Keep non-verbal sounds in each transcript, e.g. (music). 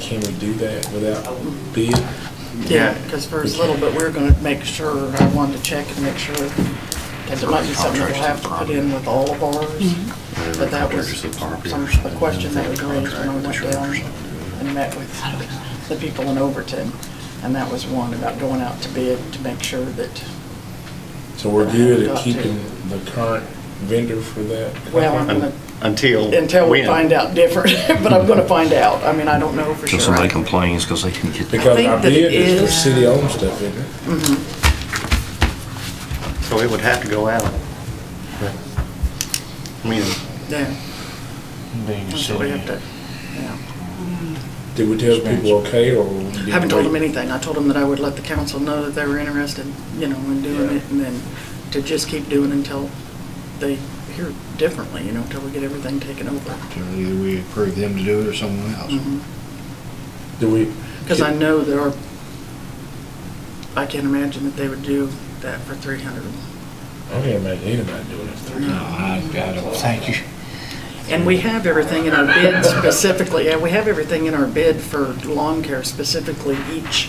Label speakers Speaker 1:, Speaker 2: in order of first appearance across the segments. Speaker 1: Can we do that without bid?
Speaker 2: Yeah, because for as little bit, we're gonna make sure, I wanted to check and make sure, because it might be something we'll have to put in with all of ours. But that was some, a question that was raised when I went down and met with the people in Overton. And that was one about going out to bid to make sure that,
Speaker 1: So we're good
Speaker 2: Got
Speaker 1: at
Speaker 2: to.
Speaker 1: keeping the current vendor for that?
Speaker 2: well, I'm
Speaker 1: company?
Speaker 2: gonna,
Speaker 3: Until.
Speaker 2: until we
Speaker 3: when?
Speaker 2: find out different, (laughs) but I'm gonna find out. I mean, I don't know for
Speaker 4: Till
Speaker 2: sure.
Speaker 4: somebody complains because they didn't get.
Speaker 1: Because
Speaker 2: think
Speaker 1: our
Speaker 2: that
Speaker 1: bid
Speaker 2: it
Speaker 1: is for
Speaker 2: is-
Speaker 1: city-owned stuff, isn't it?
Speaker 2: Mm-hmm.
Speaker 3: So it would have to go out. I mean,
Speaker 2: Yeah, so we have to, yeah.
Speaker 1: Did we tell people okay, or? did
Speaker 2: Haven't
Speaker 1: we
Speaker 2: told them
Speaker 1: wait?
Speaker 2: anything. I told them that I would let the council know that they were interested, you know, in doing it, and then to just keep doing until they hear differently, you know, until we get everything taken over.
Speaker 5: So Either we approve them to do it or someone else.
Speaker 1: Do we?
Speaker 2: Because I know there are, I can't imagine that they would do that for three hundred.
Speaker 1: I can't imagine anybody doing it.
Speaker 5: No, I, I don't think you,
Speaker 2: And we have everything in our bid specifically, yeah, we have everything in our bid for lawn care specifically, each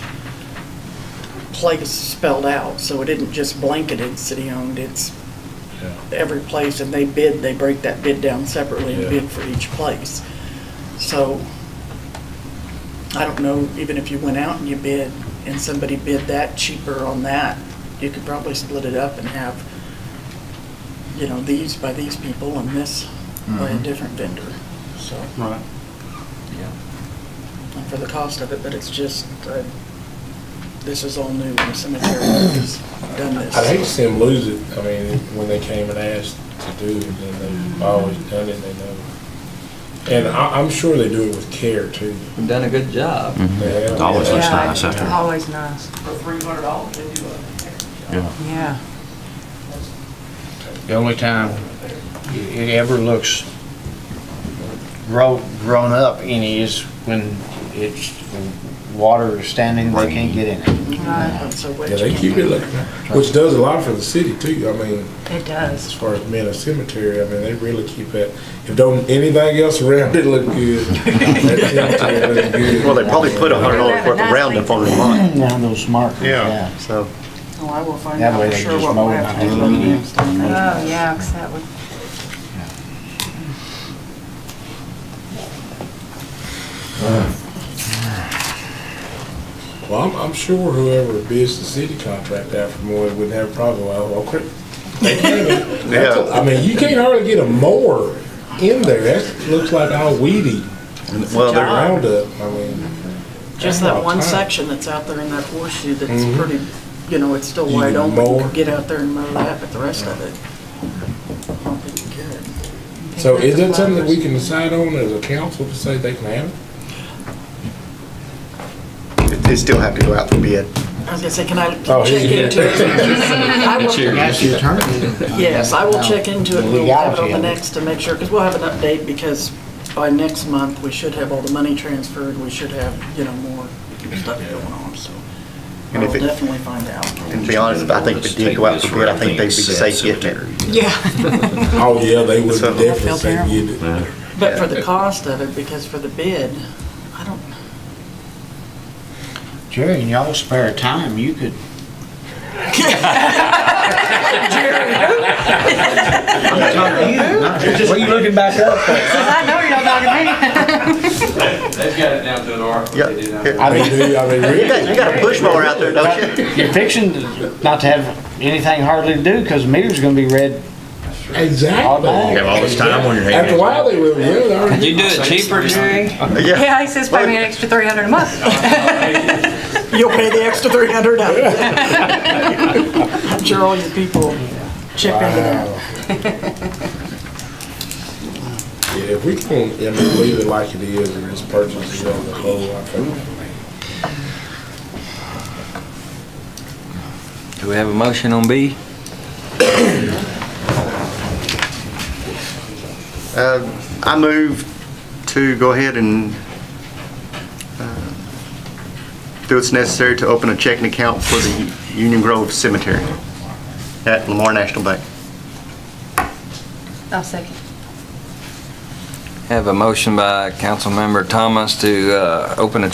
Speaker 2: place spelled out, so it isn't just blanketed city-owned, it's
Speaker 1: Yeah.
Speaker 2: every place and they bid, they break that bid down separately and
Speaker 1: Yeah.
Speaker 2: bid for each place. So I don't know, even if you went out and you bid and somebody bid that cheaper on that, you could probably split it up and have, you know, these by these people and this by a different vendor, so.
Speaker 3: right.
Speaker 2: And for the cost of it, but it's just, uh, this is all new in the cemetery, has done this.
Speaker 1: I'd hate to see them lose it. I mean, when they came and asked to do it, then they've always done it, they know. And I, I'm sure they do it with care too.
Speaker 6: We've done a good job.
Speaker 1: Yeah.
Speaker 4: It always looks nice after.
Speaker 7: Always nice,
Speaker 2: For three hundred dollars, they do it.
Speaker 4: Yeah.
Speaker 7: yeah.
Speaker 5: the only time it ever looks grown, grown up any is when it's, water is standing, they can't get in it.
Speaker 2: So
Speaker 1: Yeah, they
Speaker 2: which,
Speaker 1: keep it like, which does a lot for the city too. I mean,
Speaker 7: It
Speaker 1: as
Speaker 7: does.
Speaker 1: far as being a cemetery, I mean, they really keep it. If don't anything else around it look good. that cemetery look good.
Speaker 3: Well, they probably put a hundred dollars worth of roundup on the
Speaker 5: (clears throat)
Speaker 3: line.
Speaker 5: Now those markers, yeah.
Speaker 3: So,
Speaker 2: oh, I will find
Speaker 5: That
Speaker 2: out
Speaker 5: way
Speaker 2: for
Speaker 5: they
Speaker 2: sure
Speaker 5: just
Speaker 2: what
Speaker 5: mow
Speaker 2: we'll
Speaker 5: it Mm-hmm.
Speaker 2: have to
Speaker 5: and
Speaker 2: do
Speaker 5: leave it in.
Speaker 2: next time.
Speaker 7: Oh, yeah, 'cause that would,
Speaker 1: Well, I'm, I'm sure whoever bids the city contract out for more wouldn't have a problem. Well, well, quick.
Speaker 3: (laughs) yeah,
Speaker 1: I mean, you can't hardly get a mower in there. That looks like all weedy
Speaker 3: well, they're,
Speaker 1: roundup. I mean,
Speaker 2: Just that one
Speaker 1: Wow.
Speaker 2: section that's out there in that horseshoe that's
Speaker 1: Mhm.
Speaker 2: pretty, you know, it's still
Speaker 1: You
Speaker 2: wide
Speaker 1: can
Speaker 2: open. You
Speaker 1: mow.
Speaker 2: could get out there and mow that, but the rest of it, I don't think you could.
Speaker 1: so is that something that we can decide on as a council to say they can have it?
Speaker 3: they still have to go out for bid.
Speaker 2: I was gonna say, can I
Speaker 1: Oh,
Speaker 2: check
Speaker 1: yeah.
Speaker 2: into
Speaker 1: (laughs)
Speaker 2: it? I will-
Speaker 5: And That's your turn.
Speaker 2: Yes, I will check into it,
Speaker 5: The
Speaker 2: we'll have it on
Speaker 5: legality
Speaker 2: the
Speaker 5: of it.
Speaker 2: next to make sure, because we'll have an update, because by next month, we should have all the money transferred, we should have, you know, more stuff going on, so. I
Speaker 3: And
Speaker 2: will
Speaker 3: if it-
Speaker 2: definitely find out.
Speaker 3: And to be honest, I think if it did go out for bid, I think they'd be safe getting it.
Speaker 7: yeah.
Speaker 1: Oh, yeah, they would
Speaker 3: So-
Speaker 1: definitely say
Speaker 7: Feel
Speaker 1: get it.
Speaker 4: Yeah.
Speaker 2: (laughs) But for the cost of it, because for the bid, I don't,
Speaker 5: Jerry, in y'all spare time,
Speaker 2: (laughs)
Speaker 5: you could (laughs) What are you looking back up for?
Speaker 7: I know you're not talking to me.
Speaker 6: They've got it down to an art.
Speaker 3: Yeah.
Speaker 6: They did down to-
Speaker 5: I
Speaker 1: They
Speaker 5: mean,
Speaker 1: do, I mean,
Speaker 3: You got,
Speaker 1: really.
Speaker 3: you got a push mower out there,
Speaker 5: (laughs)
Speaker 3: don't you?
Speaker 5: you're fixing to- not to have anything hardly to do, because meter's gonna be red all
Speaker 1: Exactly.
Speaker 5: day.
Speaker 1: all this time on your hands. After a while, they will, yeah, they already.
Speaker 6: You do it cheaper, Jerry?
Speaker 3: Yeah.
Speaker 7: Yeah, he says pay me an extra three hundred a month.
Speaker 2: you'll pay the extra three hundred out of it. (laughs) I'm sure all your people chip into that.
Speaker 1: Yeah, if we can, I mean, leave it like it is, or it's purchased, you know, the whole, I think.
Speaker 6: Do we have a motion on B?
Speaker 3: Uh, I move to go ahead and uh, do what's necessary to open a checking account for the Union Grove Cemetery at Lamar National Bank.
Speaker 7: I'll second.
Speaker 6: Have a motion by Councilmember Thomas to uh, open a